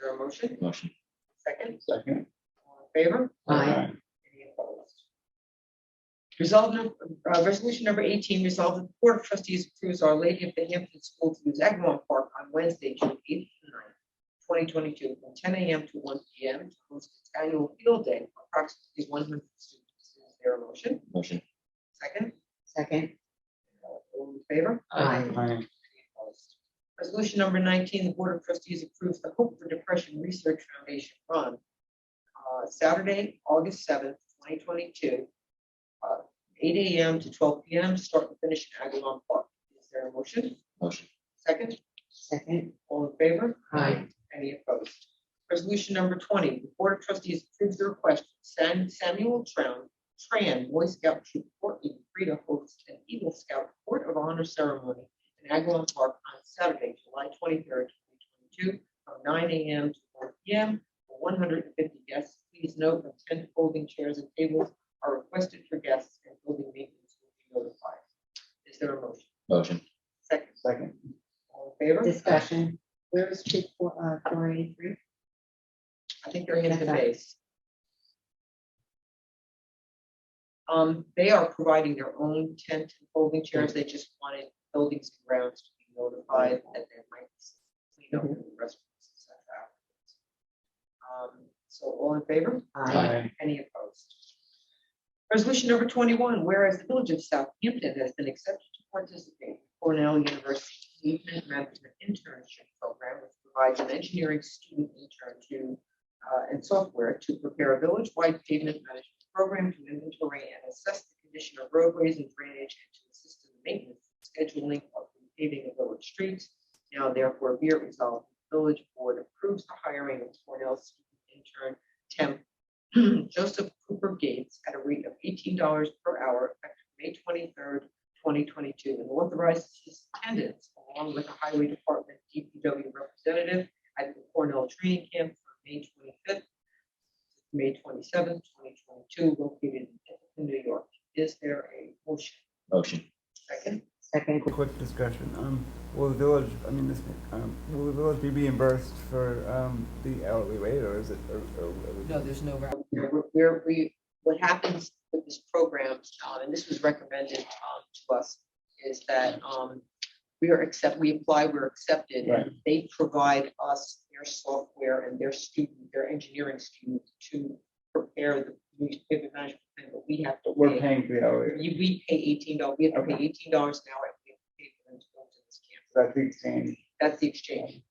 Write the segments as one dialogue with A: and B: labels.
A: there a motion?
B: Motion.
A: Second,
C: Second.
A: all in favor?
D: Aye.
A: Any opposed? Resolve, num- uh, resolution number eighteen, resolve that the Board of Trustees approves Our Lady of the Hampton School to use Agawam Park on Wednesday, June eighth and ninth, twenty twenty-two, from ten AM to one PM, to host its annual field day, for approximately one hundred students. Is there a motion?
B: Motion.
A: Second,
D: second,
A: all in favor?
D: aye,
C: Aye.
A: Resolution number nineteen, the Board of Trustees approves the Hope for Depression Research Foundation Run. uh, Saturday, August seventh, twenty twenty-two. uh, Eight AM to twelve PM, start and finish in Agawam Park. Is there a motion?
B: Motion.
A: Second,
D: second,
A: all in favor?
D: aye,
A: Any opposed? Resolution number twenty, the Board of Trustees approves the request of Sam- Samuel Tran, Tran, Boy Scout Troop fourteen, free to host an Eagle Scout Court of Honor ceremony in Agawam Park on Saturday, July twenty-third, twenty twenty-two, from nine AM to four PM, for one hundred and fifty guests. Please note that ten folding chairs and tables are requested for guests and building maintenance will be notified. Is there a motion?
B: Motion.
A: Second,
C: Second.
A: all in favor?
D: discussion. Where was Troop four, uh, four eighty-three?
A: I think they're in the base. Um, they are providing their own tent and folding chairs. They just wanted buildings and grounds to be notified that they might clean up the restrooms. and stuff afterwards. Um, so all in favor?
D: Aye,
A: Any opposed? Resolution number twenty-one, whereas the village of Southampton has been accepted to participate in Cornell University Engagement Management Internship Program, which provides an engineering student intern to uh, and software to prepare a village-wide pavement management program to inventory and assess the condition of roadways and drainage and to assist in the maintenance and scheduling of the paving of village streets. Now therefore be it resolved, the village board approves the hiring of Cornell student intern temp Hmm, Joseph Cooper Gates at a rate of eighteen dollars per hour effective May twenty-third, twenty twenty-two, and authorizes his attendance along with the Highway Department DPW representative at the Cornell Training Camp for May twenty-fifth, May twenty-seventh, twenty twenty-two, located in New York. Is there a motion?
B: Motion.
A: Second,
D: second,
C: Quick- Quick discussion. Um, will the village, I mean, this, um, will the village be reimbursed for, um, the hourly rate or is it? or- or- or-
E: No, there's no, route.
A: We're- we're, we, what happens with this program, um, and this was recommended, um, to us, is that, um, we are accept, we apply, we're accepted,
C: Right.
A: and they provide us their software and their student, their engineering student to prepare the pavement management plan, but we have to
C: We're
A: pay.
C: paying for the hourly,
A: You- We pay eighteen dollars, we have to pay
C: Okay.
A: eighteen dollars an hour, and we have to pay for them to go to this camp.
C: that's the exchange.
A: That's the exchange.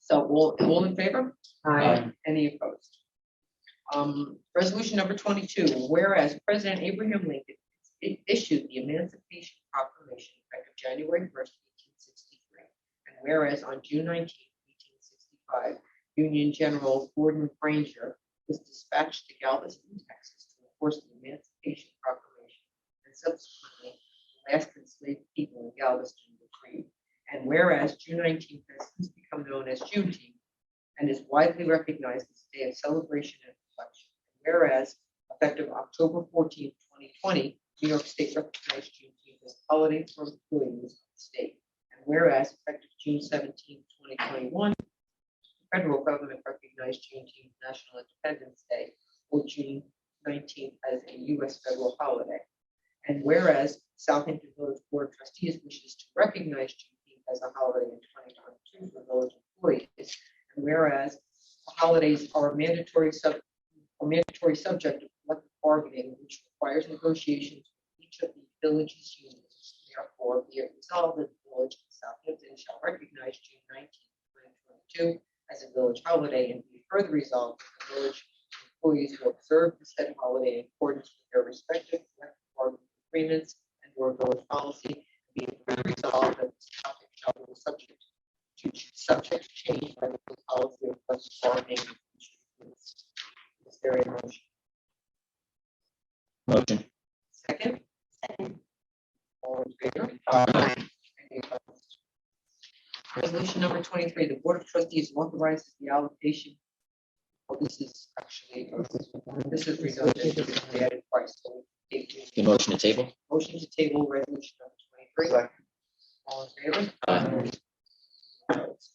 A: So all, all in favor?
D: aye,
A: Any opposed? Um, resolution number twenty-two, whereas President Abraham Lincoln i- issued the Emancipation Proclamation effective January first, eighteen sixty-three. And whereas on June 19, eighteen sixty-five, Union General Gordon Granger was dispatched to Galveston, Texas to enforce the Emancipation Proclamation and subsequently the last enslaved people in Galveston were freed. And whereas June 19th has since become known as Juneteenth, and is widely recognized as a day of celebration and reflection. Whereas effective October 14, twenty twenty, New York State recognized Juneteenth as a holiday for employees of the state. And whereas effective June 17, twenty twenty-one, the federal government recognized Juneteenth National Independence Day or June nineteenth as a U.S. federal holiday. And whereas Southampton Village Board of Trustees wishes to recognize Juneteenth as a holiday in twenty twenty-two for village employees, and whereas holidays are a mandatory sub, a mandatory subject of collective bargaining, which requires negotiations with each of the village's unions. Therefore, be it resolved that the village of Southampton shall recognize June nineteenth, twenty twenty-two as a village holiday and be further resolved that the village employees will observe the said holiday in accordance with their respective collective bargaining agreements and or village policy. Be it further resolved that this topic shall be subject to ch- subject to change by the policy of collective bargaining. Is there a motion?
B: Motion.
A: Second?
D: Second.
A: All in favor?
D: aye,
A: Any opposed? Resolution number twenty-three, the Board of Trustees authorizes the allocation. Well, this is actually, this is redundant, this is the added price. so we take the
B: The motion to table.
A: Motion to table resolution number twenty-three.
C: Second.
A: All in favor?
B: Aye.
A: Opposed?